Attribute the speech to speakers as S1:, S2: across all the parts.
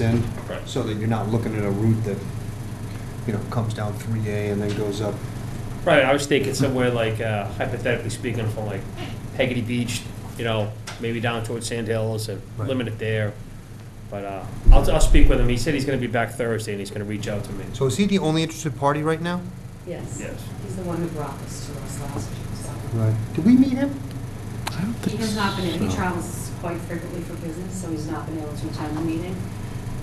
S1: in,
S2: Okay.
S1: so that you're not looking at a route that, you know, comes down 3A and then goes up.
S2: Right, I was thinking somewhere like uh, hypothetically speaking, from like Peggy Beach, you know, maybe down towards Sand Hills and
S1: Right.
S2: limit it there. But uh, I'll, I'll speak with him. He said he's gonna be back Thursday and he's gonna reach out to me.
S1: So is he the only interested party right now?
S3: Yes.
S2: Yes.
S3: He's the one who brought this to us last year, so.
S1: Right. Did we meet him?
S4: I don't
S3: He
S4: think
S3: has not been, in. he
S4: so.
S3: travels quite frequently for business, so he's not been able to attend the meeting.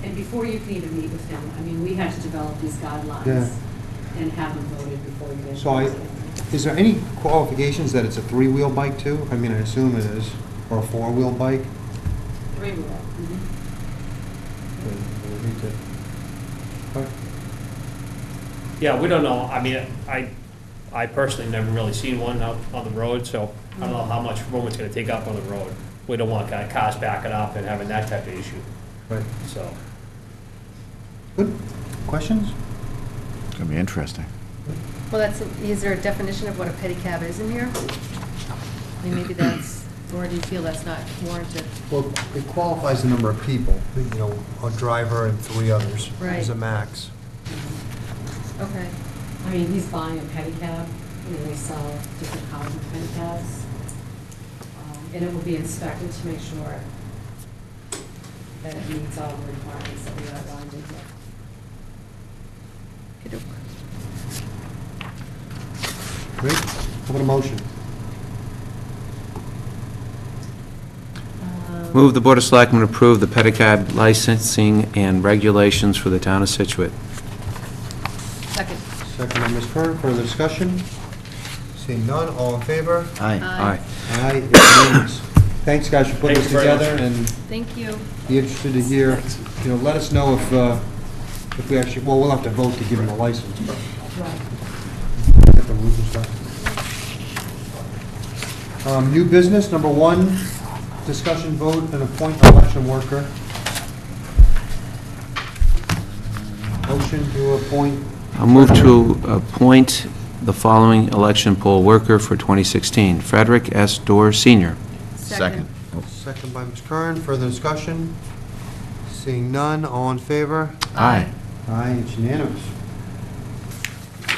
S3: And before you can even meet with him, I mean, we had to develop these
S1: Yeah.
S3: guidelines and have them voted before you get.
S1: So I- Is there any qualifications that it's a three-wheel bike too? I mean, I assume it is, or a four-wheel bike?
S3: Three Mm-hmm. wheel.
S1: Then we'll need to- all right.
S2: Yeah, we don't know. I mean, I, I personally never really seen one out on the road, so I don't know how much room it's gonna take up on the road. We don't want ca- cars backing up and having that type of issue,
S1: Right.
S2: so.
S1: Good. Questions?
S4: It's gonna be interesting.
S5: Well, that's, is there a definition of what a pedicab is in here? I mean, Maybe that's, or do you feel that's not warranted?
S1: Well, it qualifies the number of people, you know, a driver and three others is
S5: Right.
S1: a max.
S5: Okay.
S3: I mean, he's buying a pedicab, you know, they sell different kinds of pedicabs. Um, And it will be inspected to make sure that it meets all the requirements that we outlined in here.
S5: Okey-doke.
S1: Great. How about a motion?
S6: Move the Board of Selectmen approve the pedicab licensing and regulations for the town of Situate.
S5: Second.
S1: Second by Ms. Curran, further discussion? Seeing none, all in favor?
S6: Uh,
S5: Aye.
S1: Aye, it's unanimous. Thanks, guys, for putting
S2: Thank
S1: this
S2: you very much.
S1: together, and
S5: Thank you.
S1: be interested to hear, you know, let us know if, uh, if we actually, well, we'll have to vote to give them a license, but
S3: Right.
S1: at the roof and stuff. Um, New business, number one, discussion vote and appoint election worker. Motion to appoint,
S6: I'll move to appoint the following election poll worker for 2016. Frederick S. Dorr, Sr.
S1: second by Ms. Curran, further discussion? Seeing none, all in favor?
S5: Aye.
S1: Aye, it's unanimous.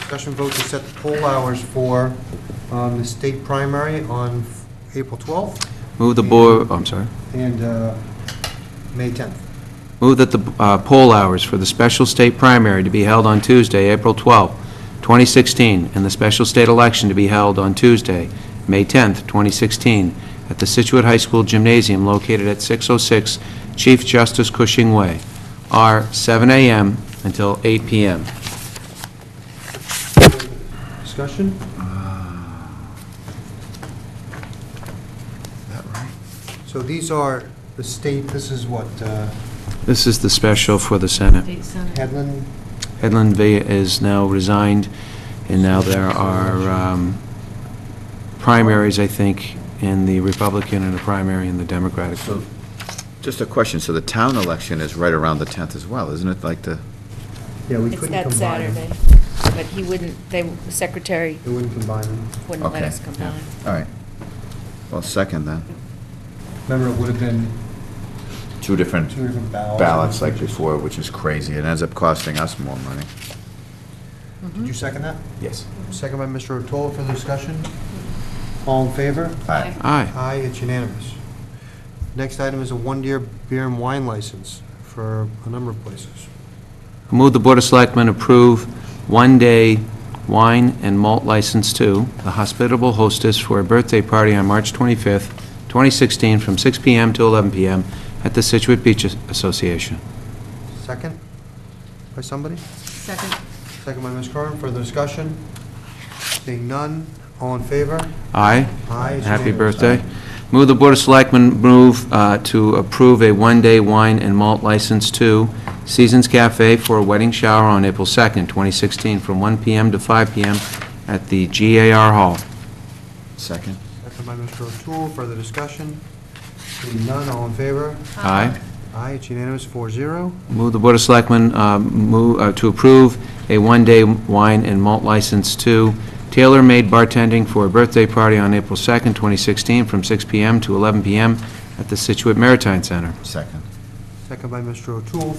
S1: Discussion vote to set the poll hours for um, the state primary on April 12th
S6: Move the board, oh, I'm sorry.
S1: and uh, May 10th.
S6: Move that the uh, poll hours for the special state primary to be held on Tuesday, April 12, 2016, and the special state election to be held on Tuesday, May 10, 2016, at the Situate High School Gymnasium located at 606 Chief Justice Cushing Way, are 7 a.m. until 8 p.m.
S1: Discussion?
S6: Ah.
S1: So these are the state, this is what, uh,
S6: This is the special for the Senate.
S5: State Senate.
S1: Headland?
S6: Edlin Villa is now resigned, and now there are um, primaries, I think, in the Republican and a primary in the Democratic.
S4: So, just a question, so the town election is right around the 10th as well, isn't it, like the,
S1: Yeah, we
S7: It's
S1: couldn't
S7: that
S1: combine
S7: Saturday,
S1: them.
S7: but he wouldn't, they, the secretary
S1: We wouldn't combine them.
S7: wouldn't let
S4: Okay,
S7: us come
S6: yeah.
S7: down.
S4: all right. Well, second then.
S1: Remember, it would have been
S4: Two different
S1: two different ballots.
S4: ballots like before, which is crazy, it ends up costing us more money.
S1: Did you second that?
S4: Yes.
S1: Second by Mr. O'Toole for the discussion. All in favor?
S4: Aye.
S6: Aye.
S1: Aye, it's unanimous. Next item is a one-year beer and wine license for a number of places.
S6: I Move the Board of Selectmen approve one-day wine and malt license to the hospitable hostess for a birthday party on March 25th, 2016, from 6 p.m. to 11 p.m. at the Situate Beach Association.
S1: Second by somebody?
S5: Second.
S1: Second by Ms. Curran, further discussion? Seeing none, all in favor?
S6: Aye.
S1: Aye, it's
S6: Happy
S1: unanimous.
S6: birthday. Move the Board of Selectmen move uh, to approve a one-day wine and malt license to Seasons Cafe for a wedding shower on April 2nd, 2016, from 1 p.m. to 5 p.m. at the GAR Hall.
S4: Second?
S1: Second by Mr. O'Toole, further discussion? Seeing none, all in favor?
S6: Aye.
S1: Aye, it's unanimous, four zero.
S6: Move the Board of Selectmen uh, move, uh, to approve a one-day wine and malt license to Tailor Made Bartending for a birthday party on April 2nd, 2016, from 6 p.m. to 11 p.m. at the Situate Maritime Center.
S4: Second.
S1: Second by Mr. O'Toole,